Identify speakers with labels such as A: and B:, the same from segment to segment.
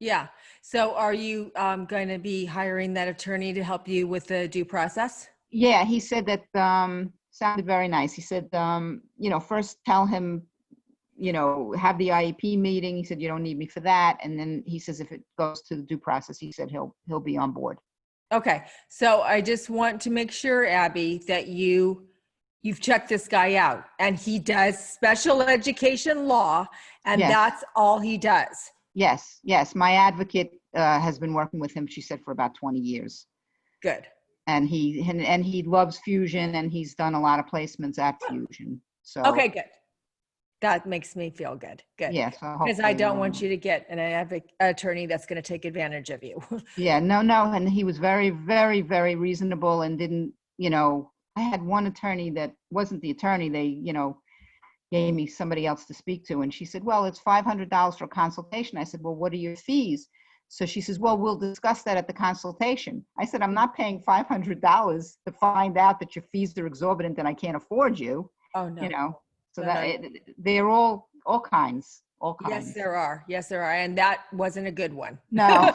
A: Yeah. So are you um, going to be hiring that attorney to help you with the due process?
B: Yeah, he said that, um, sounded very nice. He said, um, you know, first tell him, you know, have the IEP meeting. He said, you don't need me for that. And then he says, if it goes to the due process, he said he'll, he'll be on board.
A: Okay. So I just want to make sure, Abby, that you you've checked this guy out, and he does special education law, and
B: Yes.
A: that's all he does.
B: Yes, yes. My advocate, uh, has been working with him, she said, for about 20 years.
A: Good.
B: And he, and, and he loves Fusion and he's done a lot of placements at Fusion. So.
A: Okay. Good. That makes me feel good. Good.
B: Yeah. so
A: Because I
B: hopefully,
A: don't
B: um,
A: want you to get an advoc- attorney that's going to take advantage of you.
B: Yeah, no, no, and he was very, very, very reasonable and didn't, you know, I had one attorney that wasn't the attorney, they, you know, gave me somebody else to speak to, and she said, well, it's five hundred dollars for consultation. I said, well, what are your fees? So she says, well, we'll discuss that at the consultation. I said, I'm not paying five hundred dollars to find out that your fees are exorbitant and I can't afford you,
A: oh no.
B: you know? So
A: No,
B: that,
A: no.
B: it- they're all, all kinds, all
A: Yes,
B: kinds.
A: there are. Yes, there are. And that wasn't a good one.
B: No.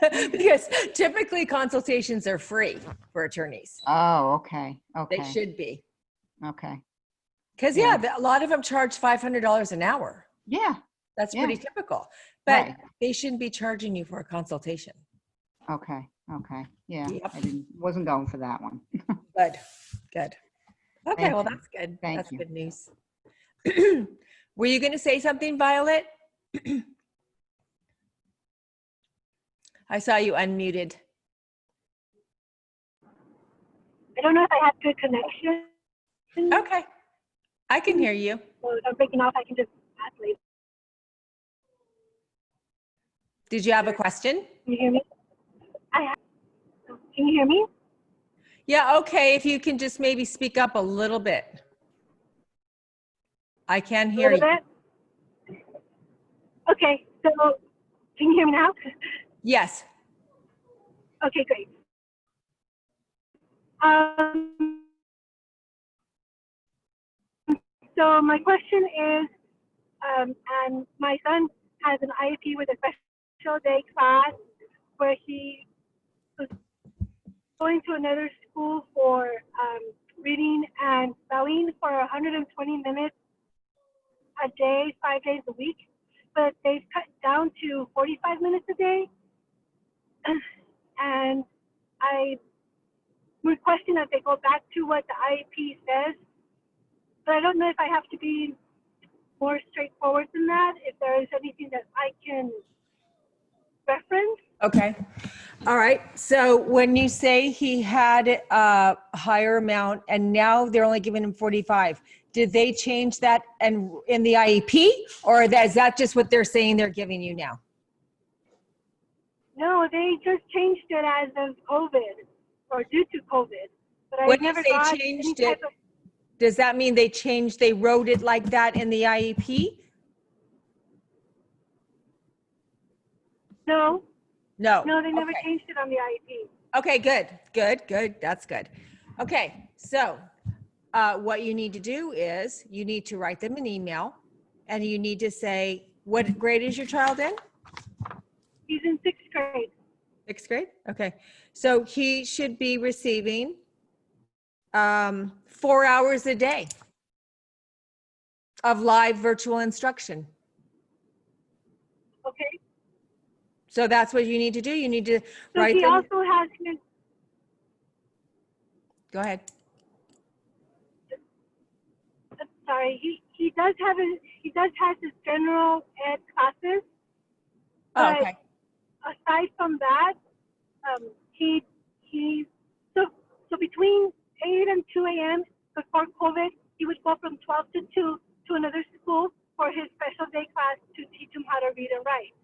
A: because typically consultations are free for attorneys.
B: Oh, okay,
A: They
B: okay,
A: should be.
B: okay.
A: Because,
B: Yeah.
A: yeah, the- a lot of them charge $500 an hour.
B: Yeah,
A: That's
B: Yeah.
A: pretty typical. But
B: right.
A: they shouldn't be charging you for a consultation.
B: Okay, okay, yeah,
A: Yep.
B: I didn't, wasn't going for that one.
A: Good, good. Okay,
B: Thank
A: well,
B: you.
A: that's good.
B: Thank
A: that's
B: you.
A: good news. Were you going to say something, Violet? I saw you unmuted.
C: I don't know if I have good connection.
A: Okay, I can hear you.
C: So if I'm breaking off, I can just ask later.
A: Did you have a question?
C: Can you hear me? I have, can you hear me?
A: Yeah, okay, if you can just maybe speak up a little bit. I can
C: A
A: hear
C: little
A: you.
C: bit? Okay, so can you hear me now?
A: Yes,
C: Okay, great. Um, so my question is, um, and my son has an IEP with a special day class where he was going to another school for um, reading and spelling for 120 minutes a day, five days a week, but they've cut down to 45 minutes a day and I requesting that they go back to what the IEP says. But I don't know if I have to be more straightforward than that, if there is anything that I can reference.
A: okay. All right, so when you say he had a higher amount and now they're only giving him 45, did they change that and in the IEP? Or that- is that just what they're saying they're giving you now?
C: No, they just changed it as of COVID or due to COVID. But
A: When
C: I
A: you
C: never
A: say
C: got any
A: changed
C: type
A: it-
C: of,
A: Does that mean they changed, they wrote it like that in the E IEP?
C: no,
A: No.
C: no, they never
A: Okay.
C: changed it on the E IEP.
A: Okay, good, good, good. That's good. Okay, so uh, what you need to do is you need to write them an email and you need to say, what grade is your child in?
C: He's in sixth grade.
A: Sixth grade? Okay. So he should be receiving um, four hours a day of live virtual instruction.
C: Okay.
A: So that's what you need to do. You need to
C: So
A: write
C: he
A: them.
C: also has his
A: Go ahead.
C: I'm sorry, he, he does have his he does has his general ed classes.
A: Oh,
C: But
A: okay.
C: Aside from that, um, he he so so between eight and two a.m. before COVID, he would go from twelve to two to another school for his special day class to teach him how to read and write.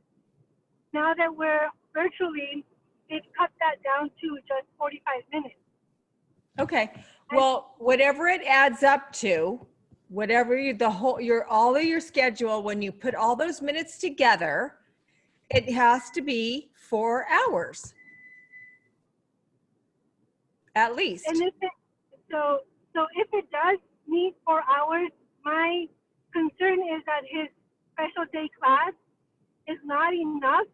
C: Now that we're virtually, they've cut that down to just forty-five minutes.
A: Okay, well, whatever it adds up to, whatever you, the whole, your, all of your schedule, when you put all those minutes together, it has to be four hours. At least.
C: And if it, so, so if it does need four hours, my concern is that his special day class is not enough